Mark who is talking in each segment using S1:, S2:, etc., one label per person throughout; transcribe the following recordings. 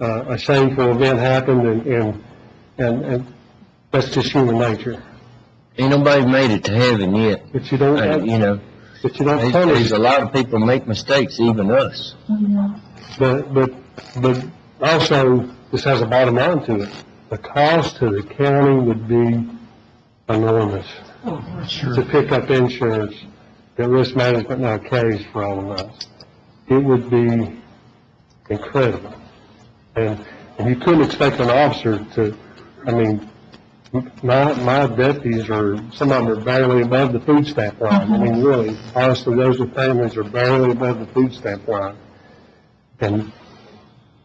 S1: uh, a shameful event happened, and- and, and, and that's just human nature.
S2: Ain't nobody made it to heaven yet,
S1: But you don't,
S2: uh, you know.
S1: but you don't
S2: There's
S1: punish,
S2: there's a lot of people make mistakes, even us.
S1: but, but, but also, this has a bottom line to it. The cost to the county would be enormous. To pick up insurance, that risk management now carries for all of us. It would be incredible. And, and you couldn't expect an officer to, I mean, my, my deputies are, some of them are barely above the food stamp line. I mean, really, honestly, those are families are barely above the food stamp line. And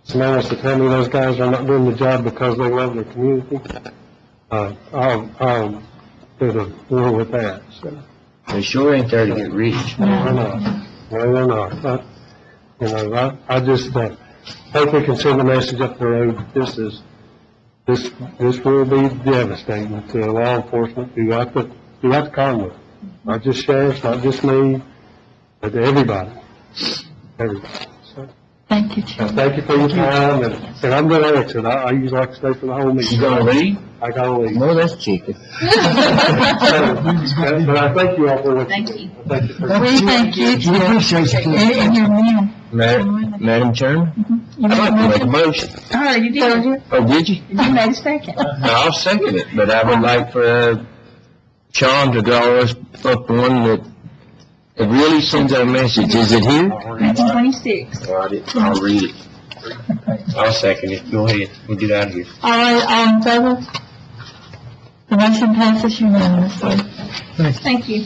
S1: somebody wants to tell me those guys are not doing the job because they love their community, uh, I'm, I'm at a war with that, so.
S2: They sure ain't there to get rich.
S1: No, they're not. No, they're not. I- You know, I, I just, uh, hope we can send a message up the road, that this is, this, this will be devastating to law enforcement throughout the, throughout the Commonwealth. Not just sheriffs, not just me, but to everybody, everybody. So,
S3: Thank you,
S1: uh,
S3: Chairman.
S1: thank you for your time, and, and I'm gonna exit, I, I usually like to stay for the whole meeting.
S2: You gonna leave?
S1: I gotta leave.
S2: No, that's chicken.
S1: So, But I thank you all for what you
S4: Thank
S1: do.
S4: you.
S1: Thank you for
S3: We thank you, Chairman. And and your man.
S2: Madam, Madam Chairman,
S3: You
S2: I'd
S3: made a
S2: like to make a
S3: motion?
S2: motion.
S4: Oh, you
S3: Did
S4: did.
S3: you?
S2: Oh, did you?
S4: You made a second.
S2: Now, I'll second it, but I would like for uh, Sean to draw us up one that, that really sends our message. Is it here?
S4: Nineteen twenty-six.
S2: All right, I'll read Oh, it. I'll second it. Go ahead. We'll get out of here.
S3: All right, all in favor? The motion passes unanimously.
S4: Thank you.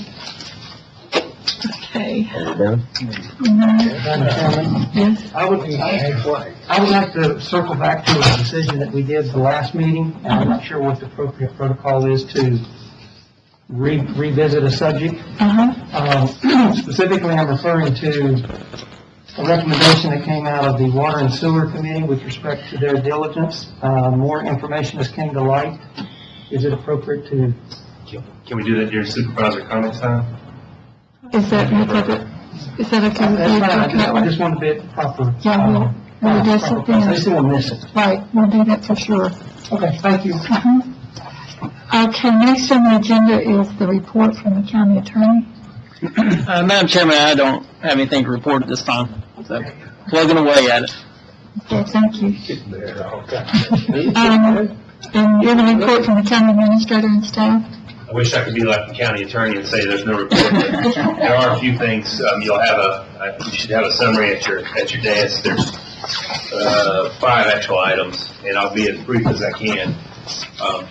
S3: Okay.
S2: Are we done?
S3: Mhm.
S5: Madam Chairman,
S3: Yes,
S5: I would, I would like to circle back to a decision that we did the last meeting, and I'm not sure what the appropriate protocol is to re- revisit a subject.
S3: uh-huh.
S5: Um, Specifically, I'm referring to a recommendation that came out of the Water and Sewer Committee with respect to their diligence. Uh, More information has came to light. Is it appropriate to
S6: Can we do that during supervisor comment time?
S3: Is that, is that- is that okay with you?
S5: That's fine, I just,
S3: That
S5: I
S3: way?
S5: just want to be at the proper. uh,
S3: Yeah, we'll- we'll address it
S5: proper
S3: then.
S5: place. They still miss it.
S3: Right, we'll do that for sure.
S5: Okay, thank you.
S3: Uh-huh. Okay, next on the agenda is the report from the county attorney.
S7: Uh, Madam Chairman, I don't have anything to report at this time, so plugging away at it.
S3: Okay, thank you. Um, and you have a report from the county administrator and staff?
S6: I wish I could be like the county attorney and say there's no report, but there are a few things, um, you'll have a, I- you should have a summary at your, at your desk. There's, uh, five actual items, and I'll be as brief as I can. Um,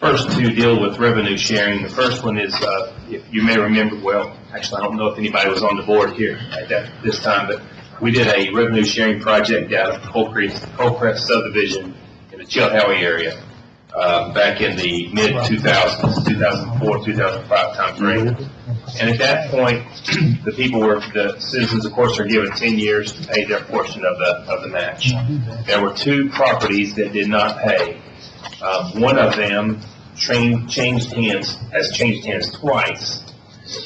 S6: First to deal with revenue sharing, the first one is, uh, if you may remember, well, actually, I don't know if anybody was on the board here at that, this time, but we did a revenue sharing project out of Coal Creek, Coal Crest subdivision in the Chilhowie area uh, back in the mid-2000s, 2004, 2005 timeframe. And at that point, the people were, the citizens, of course, are given 10 years to pay their portion of the, of the match. There were two properties that did not pay. Uh, One of them train- changed hands, has changed hands twice.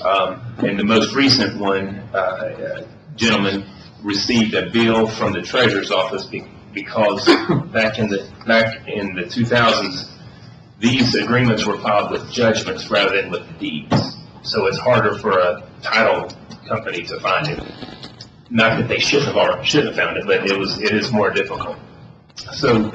S6: Um, And the most recent one, uh, gentleman received a bill from the treasurer's office be- because back in the, back in the 2000s, these agreements were filed with judgments rather than with deeds. So it's harder for a title company to find it. Not that they shouldn't have, alre- shouldn't have found it, but it was, it is more difficult. So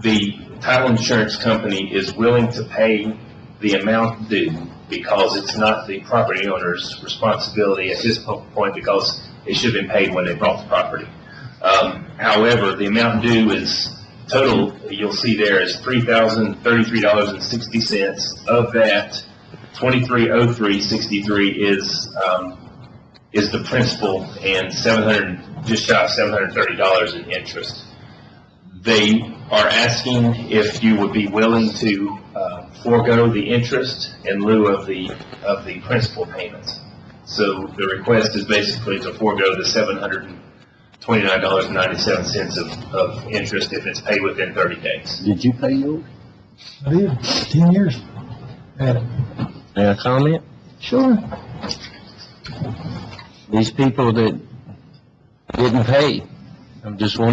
S6: the title insurance company is willing to pay the amount due because it's not the property owner's responsibility at this po- point because it should have been paid when they bought the property. Um, However, the amount due is total, you'll see there is three thousand thirty-three dollars and sixty cents. Of that, twenty-three oh three sixty-three is, um, is the principal and seven hundred, just shy of seven hundred thirty dollars in interest. They are asking if you would be willing to uh, forego the interest in lieu of the, of the principal payments. So the request is basically to forego the seven hundred and twenty-nine dollars and ninety-seven cents of, of interest if it's paid within thirty days.
S2: Did you pay yours?
S5: I did, ten years. Adam.
S2: May I comment?
S3: Sure.
S2: These people that didn't pay, I'm just wondering